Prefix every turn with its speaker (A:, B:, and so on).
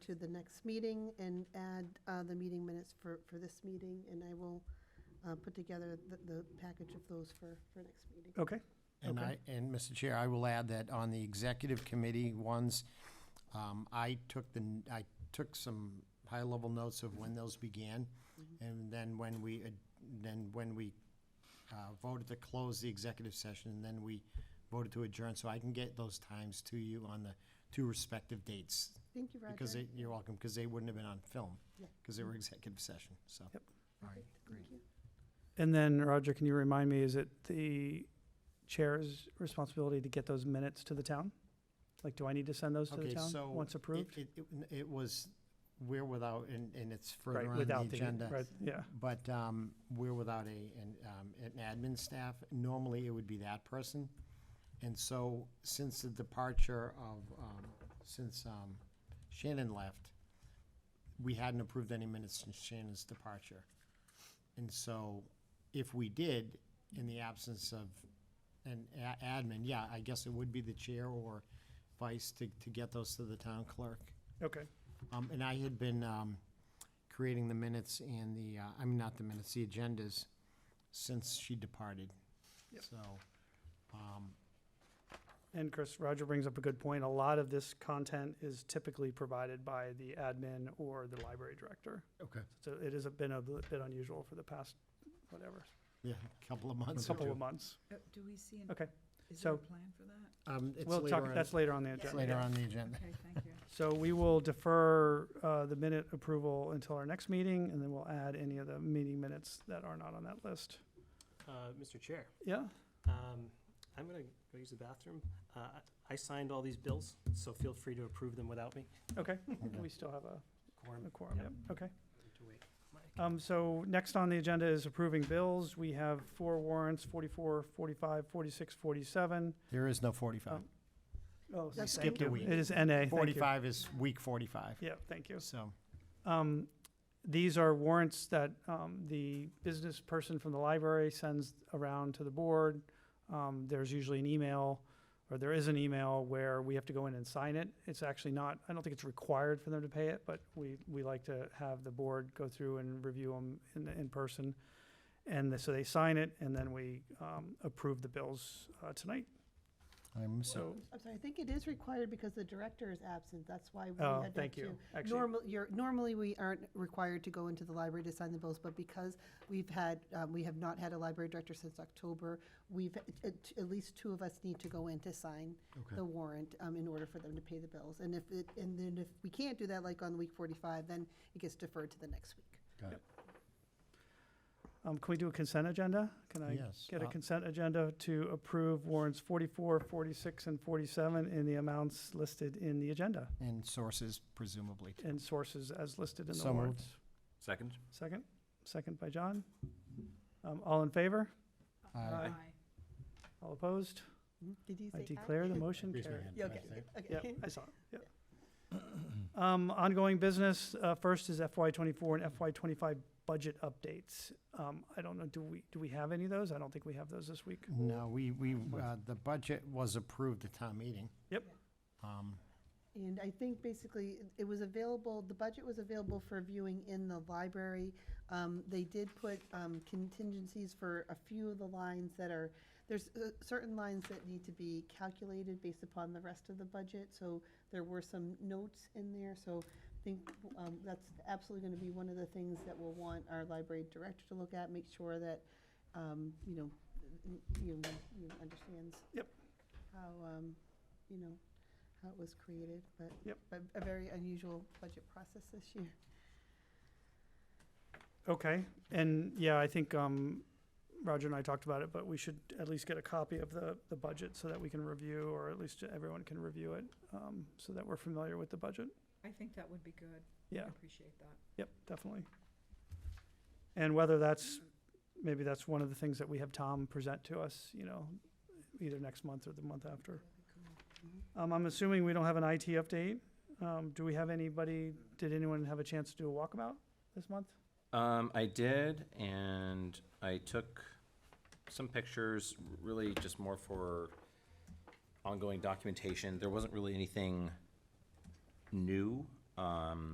A: to the next meeting and add uh, the meeting minutes for, for this meeting, and I will uh, put together the, the package of those for, for next meeting.
B: Okay,
C: And
B: Okay.
C: I, and Mr. Chair, I will add that on the executive committee ones, um, I took the, n- I took some high-level notes of when those began.
A: Mm-hmm.
C: And then when we, ad- then when we, uh, voted to close the executive session, and then we voted to adjourn. So I can get those times to you on the two respective dates.
A: Thank you, Roger.
C: Because they, you're welcome, because they wouldn't have been on film,
A: Yeah.
C: because they were executive session, so.
B: Yep.
C: All right,
A: Perfect.
C: great.
A: Thank you.
B: and then Roger, can you remind me, is it the chair's responsibility to get those minutes to the town? Like, do I need to send those to the
C: Okay,
B: town
C: so
B: once
C: it-
B: approved?
C: It, it, it was, we're without, and, and it's
B: Right,
C: further on the
B: without
C: agenda.
B: Right, yeah,
C: But, um, we're without a, an, um, an admin staff. Normally, it would be that person. And so, since the departure of, um, since, um, Shannon left, we hadn't approved any minutes since Shannon's departure. And so, if we did, in the absence of an a- admin, yeah, I guess it would be the chair or vice to, to get those to the town clerk.
B: okay,
C: Um, and I had been, um, creating the minutes and the, uh, I mean, not the minutes, the agendas since she departed.
B: Yep.
C: So, um,
B: and Chris, Roger brings up a good point, a lot of this content is typically provided by the admin or the library director.
C: okay,
B: So it has been a bit unusual for the past, whatever,
C: yeah, a couple of months.
B: couple of months.
D: Uh, Do we see, an-
B: Okay,
D: is there a
B: so-
D: plan for that?
C: Um, it's
B: we'll talk,
C: later on,
B: that's later on the agenda.
C: it's later
B: yeah.
C: on the agenda.
D: Okay, thank you.
B: So we will defer uh, the minute approval until our next meeting, and then we'll add any of the meeting minutes that are not on that list.
E: Uh, Mr. Chair,
B: Yeah,
E: um, I'm gonna go use the bathroom. Uh, I- I signed all these bills, so feel free to approve them without me.
B: okay.
C: Okay.
B: We still have a-
E: Quorum,
B: a quorum,
E: Yep.
B: yep, okay.
E: need to wait. Mike.
B: Um, So next on the agenda is approving bills. We have four warrants, 44, 45, 46, 47.
C: There is no forty-five.
B: Um, Oh,
A: That's
B: thank
C: skipped a
B: you.
C: week.
B: It is NA, thank you.
C: Forty-five is week forty-five,
B: Yeah, thank you.
C: so.
B: Um, These are warrants that um, the business person from the library sends around to the board. Um, There's usually an email, or there is an email where we have to go in and sign it. It's actually not, I don't think it's required for them to pay it, but we, we like to have the board go through and review them in, in person. And so they sign it, and then we um, approve the bills uh, tonight.
C: I'm so,
B: So,
A: I'm sorry, I think it is required because the director is absent, that's why we
B: oh,
A: had to have
B: thank you.
A: two.
B: Actually,
A: Normal, you're, normally we aren't required to go into the library to sign the bills, but because we've had, um, we have not had a library director since October, we've, at, at least two of us need to go in to sign
C: okay,
A: the warrant, um, in order for them to pay the bills. And if it, and then if we can't do that, like on week forty-five, then it gets deferred to the next week.
C: got it.
B: um, can we do a consent agenda? Can I
C: Yes.
B: Get a
C: uh,
B: consent agenda to approve warrants 44, 46, and 47 in the amounts listed in the agenda
C: And sources presumably.
B: and sources as listed in the
C: So moved.
B: warrants.
F: Second?
B: Second, second by John. Um, All in favor?
D: Uh,
C: Aye.
D: Aye.
B: All opposed?
A: Did you
B: I
A: say
B: declare the motion
C: Raise my
B: carried.
C: hand.
A: Yeah, Okay,
C: Can I say?
A: okay.
B: Yep, I saw, it, yep. Um, Ongoing business, uh, first is FY '24 and FY '25 budget updates. Um, I don't know, do we, do we have any of those? I don't think we have those this week.
C: No, we, we, uh, the budget was approved at town meeting.
B: Yep.
C: Um,
A: And I think basically it was available, the budget was available for viewing in the library. Um, They did put um, contingencies for a few of the lines that are, there's uh, certain lines that need to be calculated based upon the rest of the budget. So there were some notes in there, so I think um, that's absolutely going to be one of the things that we'll want our library director to look at, make sure that, um, you know, you you understands.
B: Yep.
A: How, um, you know, how it was created, but.
B: Yep.
A: but A very unusual budget process this year.
B: Okay, and yeah, I think um, Roger and I talked about it, but we should at least get a copy of the, the budget so that we can review, or at least everyone can review it, um, so that we're familiar with the budget.
D: I think that would be good. I
B: Yeah,
D: appreciate that.
B: yep, definitely. And whether that's, maybe that's one of the things that we have Tom present to us, you know, either next month or the month after.
D: That'd be cool.
B: Um, I'm assuming we don't have an IT update. Um, do we have anybody, did anyone have a chance to do a walkabout this month?
F: Um, I did, and I took some pictures, really just more for ongoing documentation. There wasn't really anything new. Um, um,